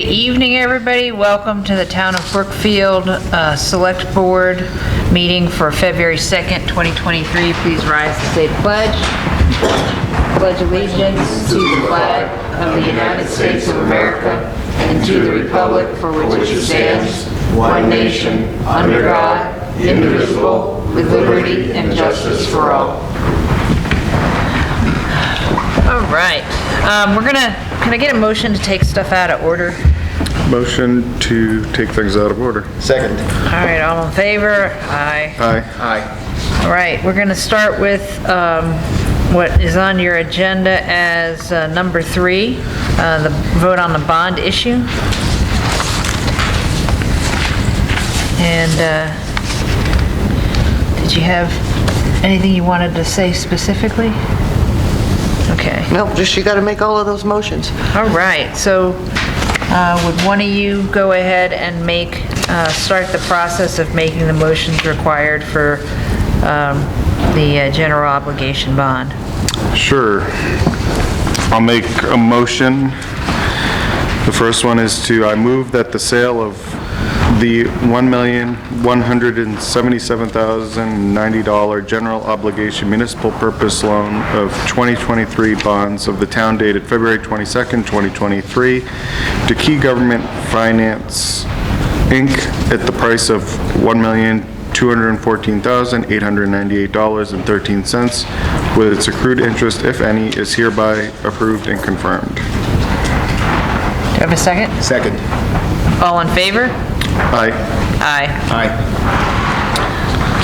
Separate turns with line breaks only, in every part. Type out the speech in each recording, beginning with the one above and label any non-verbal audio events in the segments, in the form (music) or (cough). Good Evening, everybody. Welcome to the Town of Brookfield uh, Select Board meeting for February 2nd, 2023. Please rise to say the pledge. Pledge allegiance to the flag of the United States of America and to the republic for which it stands, one nation, under God, indivisible, with liberty and justice for all. All right. Um, We're gonna, can I get a motion to take stuff out of order?
Motion to take things out of order.
Second.
All right, all in favor? Aye.
Aye.
Aye.
All right, we're going to start with um, what is on your agenda as uh, number three, uh, the vote on the bond issue. And uh, did you have anything you wanted to say specifically? Okay,
No, just you got to make all of those motions.
all right, so uh, would one of you go ahead and make, uh, start the process of making the motions required for um, the uh, general obligation bond?
Sure. I'll make a motion. The first one is to, I move that the sale of the $1,177,090 general obligation municipal purpose loan of 2023 bonds of the town dated February 22nd, 2023, to Key Government Finance, Inc., at the price of $1,214,898.13, with its accrued interest, if any, is hereby approved and confirmed.
Do you have a second?
Second.
All in favor?
Aye.
Aye.
Aye.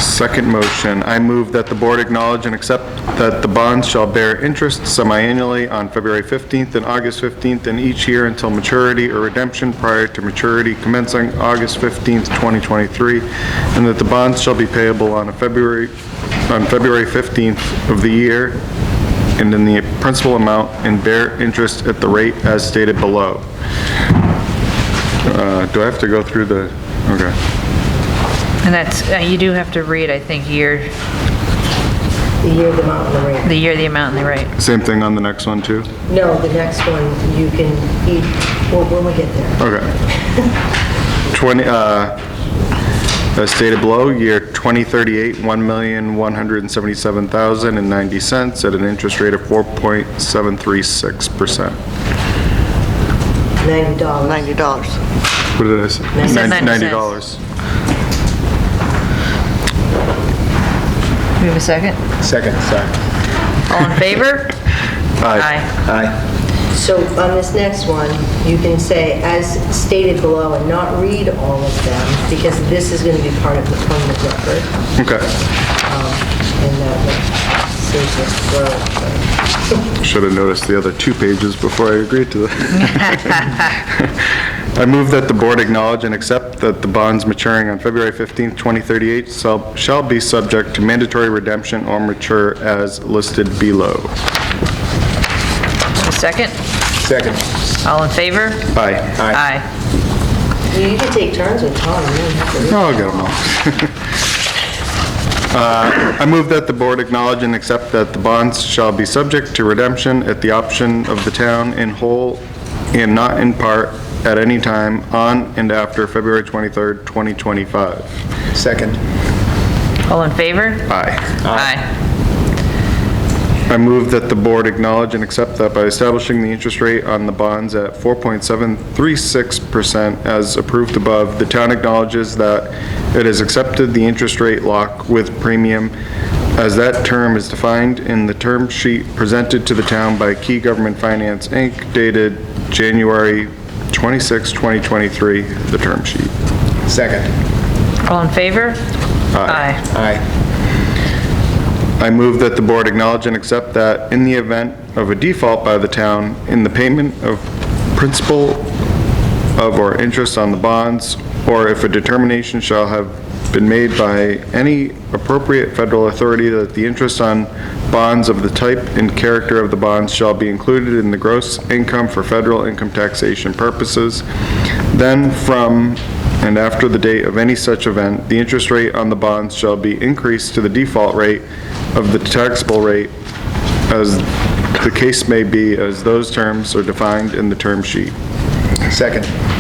Second motion, I move that the board acknowledge and accept that the bonds shall bear interest semi-annually on February 15th and August 15th in each year until maturity or redemption prior to maturity commencing August 15th, 2023, and that the bonds shall be payable on a February, on February 15th of the year and in the principal amount and bear interest at the rate as stated below. Uh, Do I have to go through the, okay.
And that's, uh, you do have to read, I think, year...
The year the amount and the rate.
The year, the amount, and the rate.
Same thing on the next one, too?
No, the next one, you can, eat well, when we get there.
Okay. 20, uh, as stated below, year 2038, $1,177,090 at an interest rate of 4.736%.
Ninety dollars.
$90.
What did I say?
said
Nin-
90
$90.
Do we have a second?
Second, sorry.
All in favor? (laughs)
Aye.
Aye.
So on this next one, you can say, as stated below, and not read all of them, because this is going to be part of the permanent record. (laughs)
Okay.
um, And that will save us from,
Should have noticed the other two pages before I agreed to that. I move that the board acknowledge and accept that the bonds maturing on February 15th, 2038 shall shall be subject to mandatory redemption or mature as listed below.
A second?
Second.
All in favor?
Aye.
Aye.
you you can take turns with Tom, you don't have to read.
No, I'll get them all. (laughs) Uh, I move that the board acknowledge and accept that the bonds shall be subject to redemption at the option of the town in whole and not in part at any time on and after February 23rd, 2025.
Second.
All in favor?
Aye.
Aye.
I move that the board acknowledge and accept that by establishing the interest rate on the bonds at 4.736% as approved above, the town acknowledges that it has accepted the interest rate lock with premium as that term is defined in the term sheet presented to the town by Key Government Finance, Inc., dated January 26, 2023, the term sheet.
Second.
All in favor? Aye.
Aye.
I move that the board acknowledge and accept that in the event of a default by the town in the payment of principal of or interest on the bonds, or if a determination shall have been made by any appropriate federal authority that the interest on bonds of the type and character of the bonds shall be included in the gross income for federal income taxation purposes, then from and after the date of any such event, the interest rate on the bonds shall be increased to the default rate of the taxable rate as the case may be, as those terms are defined in the term sheet. Second.